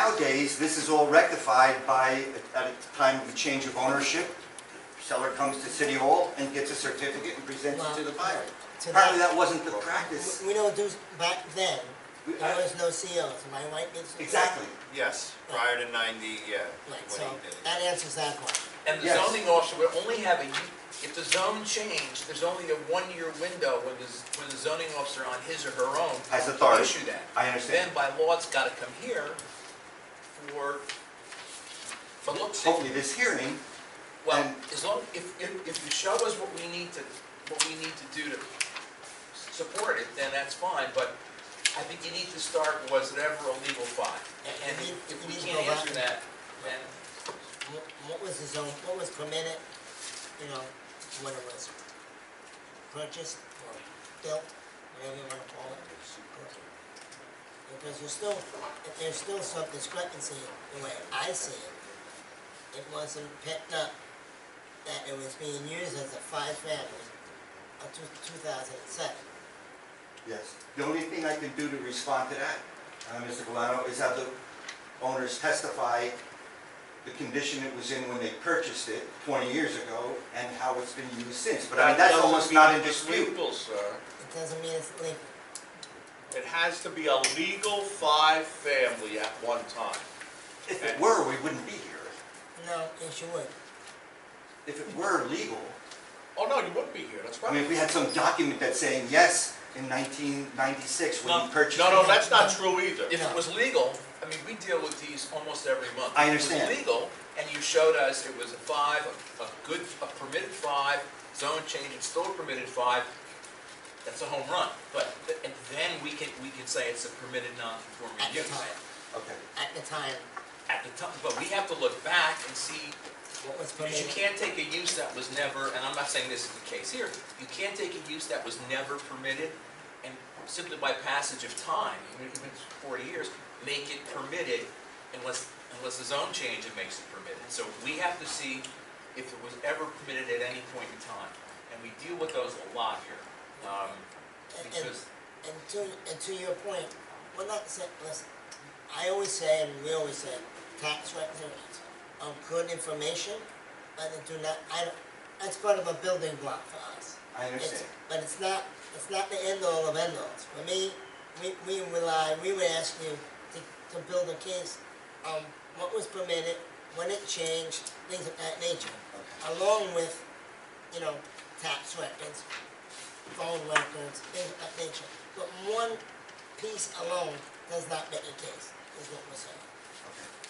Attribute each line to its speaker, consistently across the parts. Speaker 1: Nowadays, this is all rectified by, at a time of a change of ownership, seller comes to City Hall and gets a certificate and presents it to the buyer.
Speaker 2: So
Speaker 1: Apparently,
Speaker 2: that-
Speaker 1: that wasn't the practice.
Speaker 2: We- We don't do, back then,
Speaker 1: We-
Speaker 2: there
Speaker 1: I-
Speaker 2: was no COs, am I right? It's-
Speaker 1: Exactly.
Speaker 3: Yes, prior to ninety, yeah. when
Speaker 2: Right,
Speaker 3: he
Speaker 2: so
Speaker 3: did it.
Speaker 2: that answers that question.
Speaker 4: And the
Speaker 1: Yes.
Speaker 4: zoning officer would only have a, if the zone changed, there's only a one-year window when the, when the zoning officer on his or her own.
Speaker 1: Has authority.
Speaker 4: will Issue that.
Speaker 1: I understand.
Speaker 4: Then by law, it's gotta come here for, for look, see,
Speaker 1: Hopefully, this hearing,
Speaker 4: well,
Speaker 1: and-
Speaker 4: as long, if, if, if you show us what we need to, what we need to do to s- support it, then that's fine, but I think you need to start was it ever a legal fine?
Speaker 2: Yeah,
Speaker 4: And
Speaker 2: you need-
Speaker 4: if
Speaker 2: you
Speaker 4: we
Speaker 2: need to
Speaker 4: can't
Speaker 2: go back
Speaker 4: answer
Speaker 2: and-
Speaker 4: that, then
Speaker 2: What, what was the zone, what was permitted, you know, when it was purchased or built, whatever you wanna call it? Because there's still, if there's still some discrepancy, the way I see it, it wasn't picked up that it was being used as a five-family until two thousand and seven.
Speaker 1: yes. The only thing I can do to respond to that, uh, Mr. Valano, is have the owners testify the condition it was in when they purchased it 20 years ago and how it's been used since. But I mean, that's
Speaker 5: doesn't
Speaker 1: almost
Speaker 5: mean
Speaker 1: not in
Speaker 5: it's
Speaker 1: dispute.
Speaker 5: legal, sir.
Speaker 2: It doesn't mean it's legal.
Speaker 5: It has to be a legal five-family at one time.
Speaker 1: If it were, we wouldn't be here.
Speaker 2: No, yes, you would.
Speaker 1: If it were legal,
Speaker 5: Oh, no, you wouldn't be here, that's
Speaker 1: I mean, if
Speaker 5: right.
Speaker 1: we had some document that's saying, yes, in 1996, when
Speaker 4: No,
Speaker 1: you purchased it.
Speaker 5: No, no, that's not true either.
Speaker 4: If
Speaker 2: No.
Speaker 4: it was legal, I mean, we deal with these almost every month.
Speaker 1: I understand.
Speaker 4: If it was legal, and you showed us it was a five, a- a good, a permitted five, zone change, it's still a permitted five, that's a home run. But, th- and then we can, we can say it's a permitted non-conforming
Speaker 2: At the
Speaker 4: use.
Speaker 2: time,
Speaker 1: Okay.
Speaker 2: at the time,
Speaker 4: At the time, but we have to look back and see,
Speaker 2: what was
Speaker 4: because
Speaker 2: permitted.
Speaker 4: you can't take a use that was never, and I'm not saying this is the case here, you can't take a use that was never permitted, and simply by passage of time, even if it's forty years, make it permitted unless, unless the zone change it makes it permitted. So we have to see if it was ever permitted at any point in time, and we deal with those a lot here. um,
Speaker 2: And- and-
Speaker 4: Because,
Speaker 2: And to, and to your point, we're not saying, listen, I always say, and we always say, tax records are good information, but they do not, I don't, that's part of a building block for us.
Speaker 1: I
Speaker 2: It's-
Speaker 1: understand.
Speaker 2: But it's not, it's not the end all of end alls. For me, we, we rely, we would ask you to, to build a case on what was permitted, when it changed, things of that nature. Along with, you know, tax records, phone records, things of that nature. But one piece alone does not make a case, is what we're saying.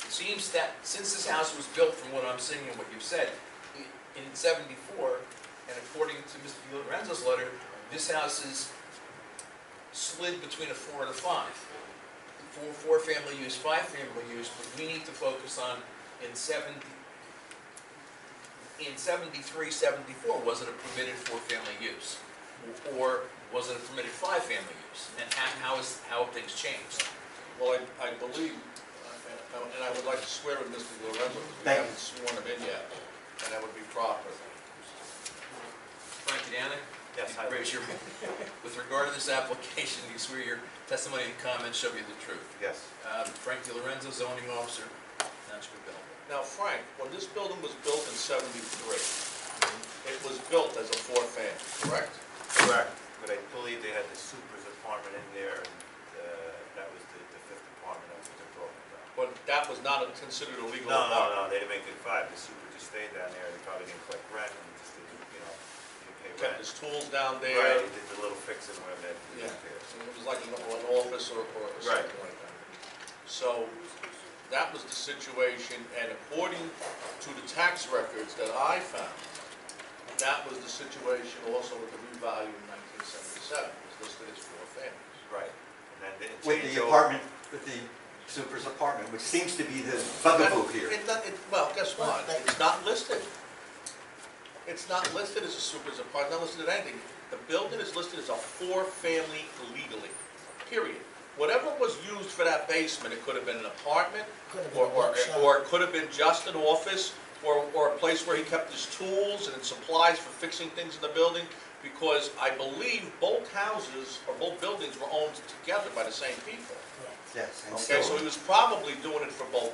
Speaker 4: It seems that since this house was built, from what I'm seeing and what you've said, i- in seventy-four, and according to Mr. Lorenzo's letter, this house is slid between a four and a five. Four, four family use, five family use, but we need to focus on in seventy, in seventy-three, seventy-four, was it a permitted four-family use? Or was it a permitted five-family use? And how, how is, how have things changed?
Speaker 5: Well, I, I believe, uh, and- and I would like to swear to Mr. Lorenzo, because we
Speaker 1: Thank you.
Speaker 5: haven't sworn him in yet, and that would be proper.
Speaker 4: Frank, you down there?
Speaker 3: Yes, I-
Speaker 4: Raise your, with regard to this application, do you swear your testimony and comments shall be the truth?
Speaker 3: Yes.
Speaker 4: Uh, Frank Di Lorenzo, zoning officer, Township of Belleville.
Speaker 5: Now, Frank, when this building was built in seventy-three, it was built as a four-family, correct?
Speaker 3: Correct. But I believe they had the super's apartment in there, and uh, that was the the fifth apartment that was broken down.
Speaker 5: But that was not a- considered a legal
Speaker 3: No, no,
Speaker 5: apartment.
Speaker 3: no, they didn't make it five, the super just stayed down there, they probably didn't collect rent, and just didn't, you know, didn't pay
Speaker 5: Kept
Speaker 3: rent.
Speaker 5: his tools down there.
Speaker 3: Right, they uh, did the little fix and whatever that
Speaker 5: Yeah,
Speaker 3: did there.
Speaker 5: so it was like an an office or, or something like that. So that was the situation, and according to the tax records that I found, that was the situation also with the revalue in nineteen seventy-seven, it was listed as four families.
Speaker 3: Right. And then they changed.
Speaker 1: With the
Speaker 3: over.
Speaker 1: apartment, with the super's apartment, which seems to be the bugaboo here.
Speaker 5: It not- it- well, guess what, it's not listed. It's not listed as a super, it's not listed as anything. The building is listed as a four-family legally, period. Whatever was used for that basement, it could have been an apartment,
Speaker 2: Could have been
Speaker 5: or,
Speaker 2: a
Speaker 5: or,
Speaker 2: workshop.
Speaker 5: or it could have been just an office, or, or a place where he kept his tools and supplies for fixing things in the building, because I believe both houses, or both buildings were owned together by the same people.
Speaker 2: Correct.
Speaker 1: yes. and
Speaker 5: Okay, so
Speaker 1: still-
Speaker 5: he was probably doing it for both